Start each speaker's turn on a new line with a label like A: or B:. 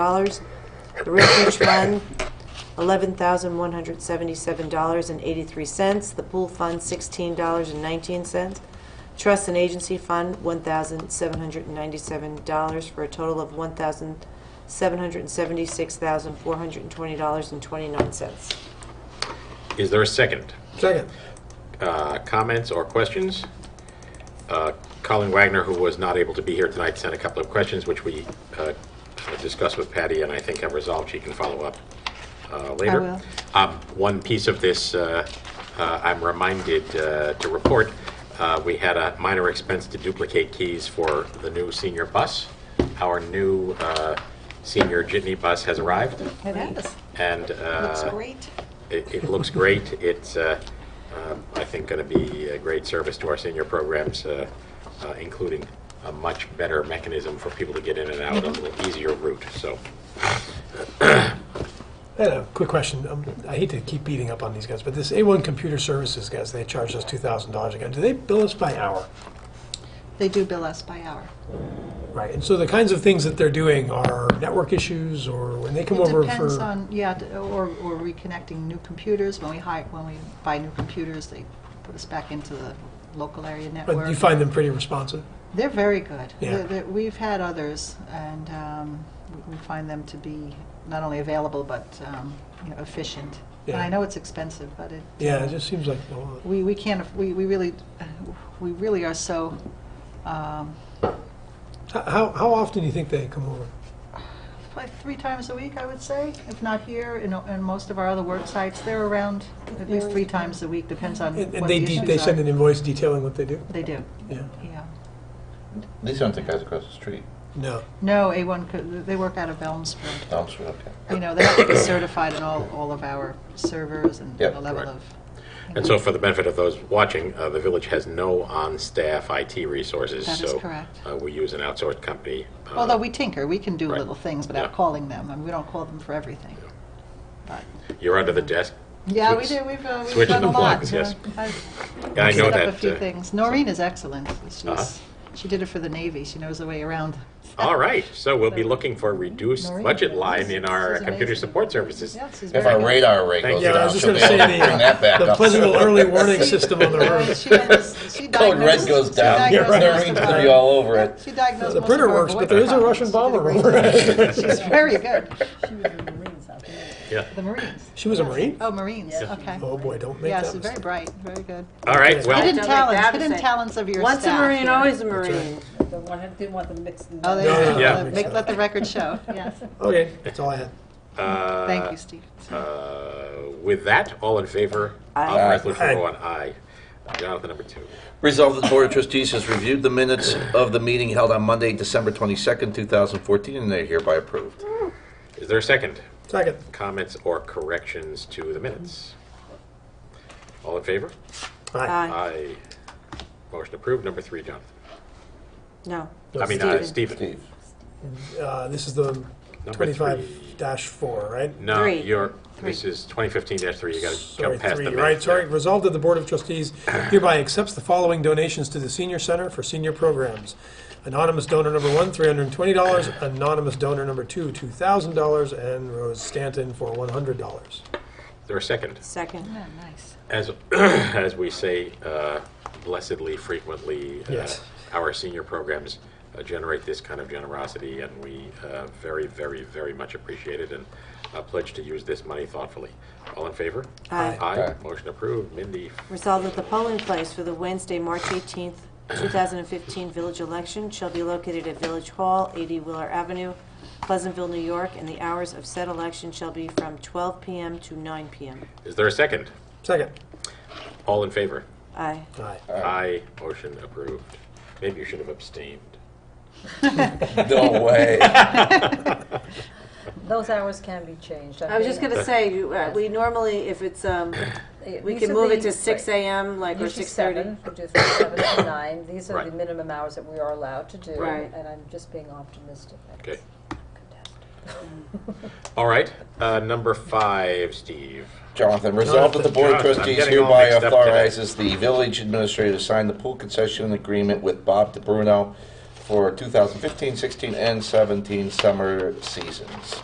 A: dollars. The refuge fund, eleven thousand one hundred seventy-seven dollars and eighty-three cents. The pool fund, sixteen dollars and nineteen cents. Trust and agency fund, one thousand seven hundred ninety-seven dollars for a total of one thousand seven hundred seventy-six thousand four hundred twenty dollars and twenty-nine cents.
B: Is there a second?
C: Second.
B: Uh, Comments or questions? Uh, Colin Wagner, who was not able to be here tonight, sent a couple of questions, which we uh, discussed with Patty, and I think have resolved. She can follow up uh, later.
A: will.
B: Um, One piece of this, uh, uh, I'm reminded uh, to report, uh, we had a minor expense to duplicate keys for the new senior bus. Our new uh, senior jitney bus has arrived,
D: It is.
B: and...
D: Looks
B: uh,
D: great.
B: It, it looks great. It's, uh, um, I think, going to be a great service to our senior programs, uh, uh, including a much better mechanism for people to get in and out, a little easier route. So,
C: I had a quick question. Um, I hate to keep beating up on these guys, but this A1 Computer Services guys, they charge us $2,000 again. Do they bill us by hour?
D: They do bill us by hour.
C: Right. And so the kinds of things that they're doing are network issues or when they come
D: It
C: over
D: depends
C: for.
D: on, yeah, d- or, or reconnecting new computers. When we hire, when we buy new computers, they put us back into the local area network.
C: but you find them pretty responsive.
D: They're very good.
C: Yeah.
D: They're- they're- We've had others, and um, we- we find them to be not only available, but, um, you know, efficient. And
C: Yeah.
D: I know it's expensive, but it.
C: Yeah, it
D: um,
C: just seems like a lot.
D: we, we can't, aff- we, we really, we really are so, um,
C: How- How, how often do you think they come over?
D: like three times a week, I would say, if not here, in, in most of our other work sites, they're around at least three times a week, depends on
C: And,
D: what
C: and they,
D: the
C: de-
D: issues
C: they
D: are.
C: send an invoice detailing what they do?
D: They do,
C: Yeah.
D: yeah.
E: These aren't the guys across the street.
C: No.
D: No, A1, could- they work out of Elmsford.
E: Elm Street, okay.
D: You know, they have to be certified in all, all of our servers and
E: Yeah,
D: the level
B: right.
D: of.
B: and so for the benefit of those watching, uh, the village has no on-staff IT resources.
D: That is
B: so,
D: correct.
B: Uh, we use an outsourced company. uh,
D: Although we tinker, we can do
B: Right.
D: little things without
B: Yeah.
D: calling them, and we don't call them for everything. But,
B: you're under the desk.
D: yeah, we
B: Switch-
D: do, we've, uh, we've
B: switch
D: done
B: the
D: a lot.
B: plugs, yes.
D: Uh, I've-
B: Yeah, I know
D: set
B: that.
D: up a few
B: uh,
D: things. Noreen is excellent. She's,
B: Uh-huh.
D: She did it for the Navy. She knows the way around.
B: All right, so we'll be looking for a reduced
D: Noreen,
B: budget
D: this
B: line in our
D: is amazing.
B: computer support services.
D: Yeah, she's
E: If
D: very
E: our
D: good.
E: radar rate goes
B: you.
C: Yeah, I
E: down,
C: was just
E: she'll
C: going
E: be
C: to say
E: able to bring that
C: the,
E: back
C: the
E: up.
C: Pleasant early warning system on the
D: Uh,
C: road.
D: she knows, she
E: Code red
D: diagnosed-
E: goes
D: she
E: down.
D: diagnosed most
E: Noreen's
D: of
E: gonna be
D: our-
E: all over it.
D: She diagnosed
C: The
D: most
C: printer
D: of our
C: works,
D: voice
C: but there is a
D: problems.
C: Russian
D: She
C: bomber
D: did a
C: over
D: great job.
C: it.
D: She's very good.
F: She was in the Marines out there.
B: Yeah.
D: The Marines.
C: She was a Marine?
D: Oh, Marines. Okay.
C: Oh boy, don't make
D: Yeah,
C: that
D: she's very
C: mistake.
D: bright. Very good.
B: All right, well.
D: Hidden
A: like
D: talents.
A: that
D: Hidden
A: mistake.
D: talents of your
A: Once a
D: staff
A: Marine,
D: here.
A: always a
C: That's right.
A: Marine.
F: The one, I didn't want them mixed in.
D: Oh,
F: there.
D: there you
C: No,
D: go.
C: no,
B: Yeah.
D: Let- make- let the record show. Yes.
C: Okay, that's all I had.
B: uh,
D: Thank you, Steve.
B: Uh, With that, all in favor of
A: Aye.
B: resolution
C: Aye.
B: number one, aye. Jonathan, number two.
E: Resolved that the Board of Trustees has reviewed the minutes of the meeting held on Monday, December 22nd, 2014, and they are hereby approved.
B: Is there a second?
C: Second.
B: Comments or corrections to the minutes? All in favor?
C: Aye.
A: Aye.
B: Aye. Motion approved. Number three, Jonathan.
A: No.
B: I mean, uh,
A: Stephen.
B: Stephen.
C: Uh, this is the
B: three.
C: twenty-five four, right?
B: No,
A: Three.
B: you're, this is 2015-3. You got to
C: Sorry,
B: jump past the
C: three,
B: minutes.
C: right, sorry. Resolved that the Board of Trustees hereby accepts the following donations to the Senior Center for Senior Programs. Anonymous donor number one, three hundred and twenty dollars. Anonymous donor number two, two thousand dollars. And Rose Stanton for one hundred dollars.
B: Is there a second?
A: Second.
D: Yeah, nice.
B: As, as we say uh, blessedly frequently, uh,
C: Yes.
B: our senior programs uh, generate this kind of generosity, and we uh, very, very, very much appreciate it and uh, pledge to use this money thoughtfully. All in favor?
A: Aye.
B: Aye.
E: Aye.
B: Motion approved. Mindy,
A: Resolved that the polling place for the Wednesday, March 18th, 2015 village election shall be located at Village Hall, 80 Wheeler Avenue, Pleasantville, New York, and the hours of said election shall be from 12 p.m. to 9 p.m.
B: is there a second?
C: Second.
B: All in favor?
A: Aye.
C: Aye.
E: uh,
B: Aye. Motion approved. Maybe you should have abstained.
E: No way.
F: Those hours can be changed.
A: I was just going to say, you, uh, we normally, if it's, um, we can move it to 6 a.m., like, or
F: Usually
A: 6:30.
F: seven, we do from seven to nine. These are
B: Right.
F: the minimum hours that we are allowed to do.
A: Right.
F: And I'm just being optimistic.
B: Okay. All right. Uh, Number five, Steve.
E: Jonathan, resolved that the Board of
B: Jonathan, I'm
E: Trustees
B: getting all
E: hereby
B: mixed up today.
E: authorizes the village administrator to sign the pool concession agreement with Bob DeBruno for 2015, 16, and 17 summer seasons.